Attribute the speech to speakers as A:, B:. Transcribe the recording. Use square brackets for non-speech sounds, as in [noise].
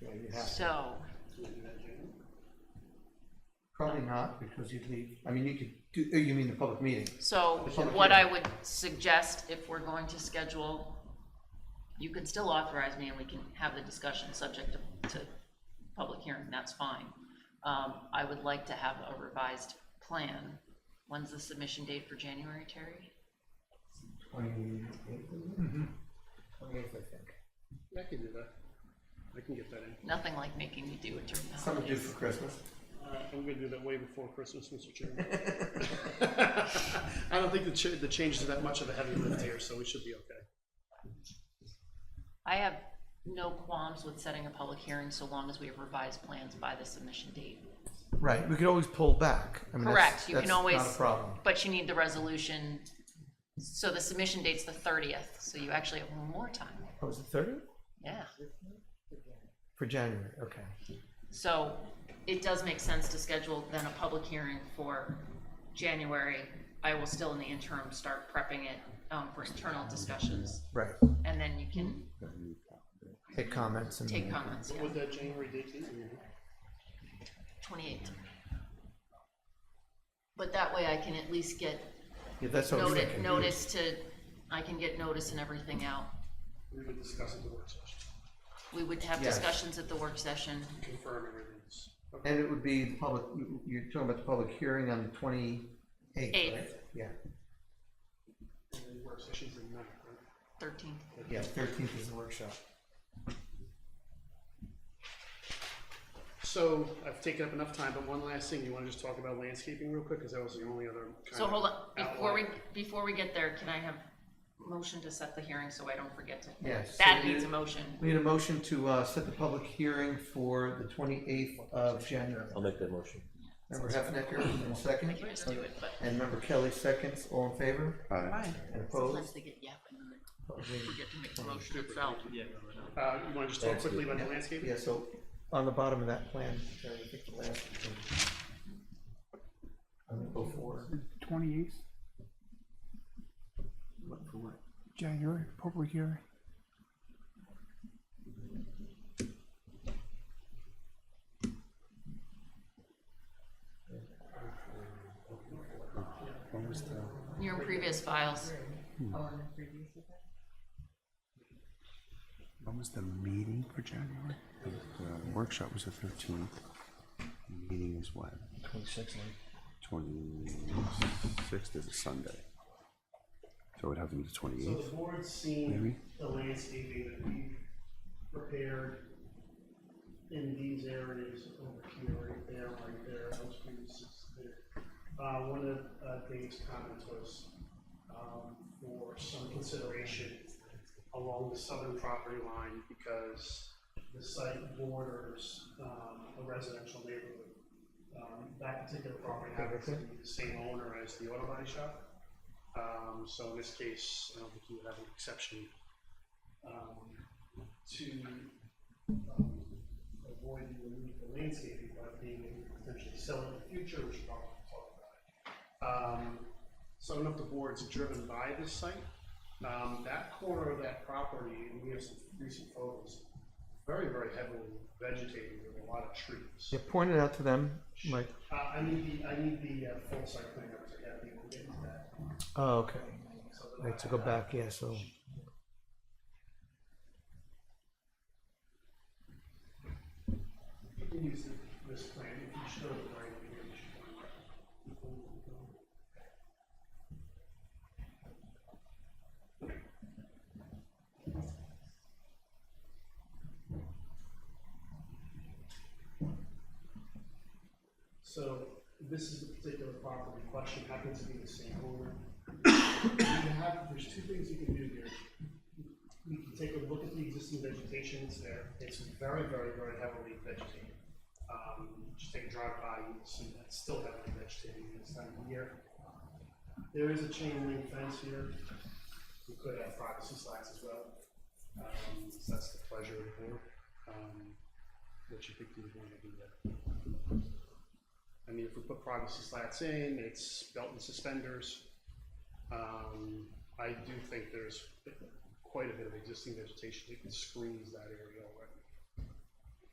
A: Yeah, you have to.
B: So,
A: Probably not, because you'd leave, I mean, you could do, oh, you mean the public meeting?
B: so
A: The public
B: what I
A: hearing.
B: would suggest, if we're going to schedule, you can still authorize me and we can have the discussion subject to, to public hearing, that's fine. Um, I would like to have a revised plan. When's the submission date for January, Terry?
A: Twenty-eighth, I think.
C: I can do that. I can get that in.
B: Nothing like making me do it during the
A: Something due
B: holidays.
A: for Christmas.
C: Uh, I'm gonna do that way before Christmas, Mr. Chairman. [laughs] I don't think the cha- the changes are that much of a heavy lift here, so we should be okay.
B: I have no qualms with setting a public hearing so long as we have revised plans by the submission date.
A: Right, we could always pull back. I mean, that's-
B: Correct, you can
A: that's
B: always.
A: Not a problem.
B: But you need the resolution, so the submission date's the thirtieth, so you actually have more time,
A: Oh, was it thirty?
B: yeah.
A: For January, okay.
B: So it does make sense to schedule then a public hearing for January. I will still in the interim start prepping it, um, for internal discussions,
A: Right,
B: and then you can
A: take comments and.
B: take comments, yeah,
C: Would that January date be?
B: twenty-eighth. But that way I can at least get
A: Yeah, that's what I was
B: notice,
A: thinking.
B: notice to, I can get notice and everything out.
C: We would discuss at the work session,
B: We would have
A: Yes.
B: discussions at the work session,
C: confirm everything's.
A: And it would be the public, you- you're talking about the public hearing on the twenty-eighth, right?
B: Eighth.
A: Yeah,
C: And then work sessions in May, right?
B: thirteenth.
A: yeah, thirteenth is the workshop.
C: So I've taken up enough time, but one last thing, you wanna just talk about landscaping real quick, cause that was the only other. kind
B: So
C: of
B: hold on, before we,
C: outline.
B: before we get there, can I have motion to set the hearing so I don't forget to?
A: Yes.
B: That
A: So
B: needs a
A: you-
B: motion.
A: We need a motion to uh, set the public hearing for the twenty-eighth of January.
D: I'll make that motion.
A: Member Heffinger, in second,
B: You guys do it, but
A: and member Kelly, seconds, all in favor?
E: Aye.
A: And
B: sometimes
A: opposed?
B: they get yapping and they forget to make the motion itself.
C: Uh, you wanna just talk quickly about the landscaping?
A: Yeah, so on the bottom of that plan, Jerry, I think the last. I'm gonna go for,
E: Twenty-eighth,
A: what, for what?
E: January, public hearing.
B: Your previous files,
E: When was the meeting for January?
F: The workshop was the thirteenth, meeting is what? Twenty-sixth is a Sunday. So it would have to be the
C: So
F: twenty-eighth,
C: the board's seen
F: Maybe.
C: the landscaping that we prepared in these areas over here, right there, right there, those previous six there. Uh, one of uh, Dave's comments was, um, for some consideration along the southern property line because the site borders, um, a residential neighborhood. Um, that particular property happens to be the same owner as the auto body shop. Um, so in this case, I don't think you would have an exception, um, to, um, avoid the remove the landscaping by being able to potentially sell it in the future, which we'll talk about. Um, so I don't know if the board's driven by this site, um, that corner of that property, and we have some recent photos, very, very heavily vegetated with a lot of trees.
A: Yeah, point it out to them, Mike.
C: Uh, I need the, I need the, uh, full site plan, because I have people get into that.
A: Oh, okay. Right, so go back, yeah, so.
C: You can use the- this plan if you show the right image. So this is the particular property question, happens to be the same owner. [coughs] You have, there's two things you can do here we can take a look at the existing vegetation that's there. It's very, very, very heavily vegetated. Um, just take a drive by, you'll see that it's still heavily vegetated this time of year. There is a chain link fence here. We could have privacy slats as well. Um, so that's the pleasure of the board. Um, what you think you would want to do there? I mean, if we put privacy slats in, it's belt and suspenders. Um, I do think there's quite a bit of existing vegetation that can squeeze that area all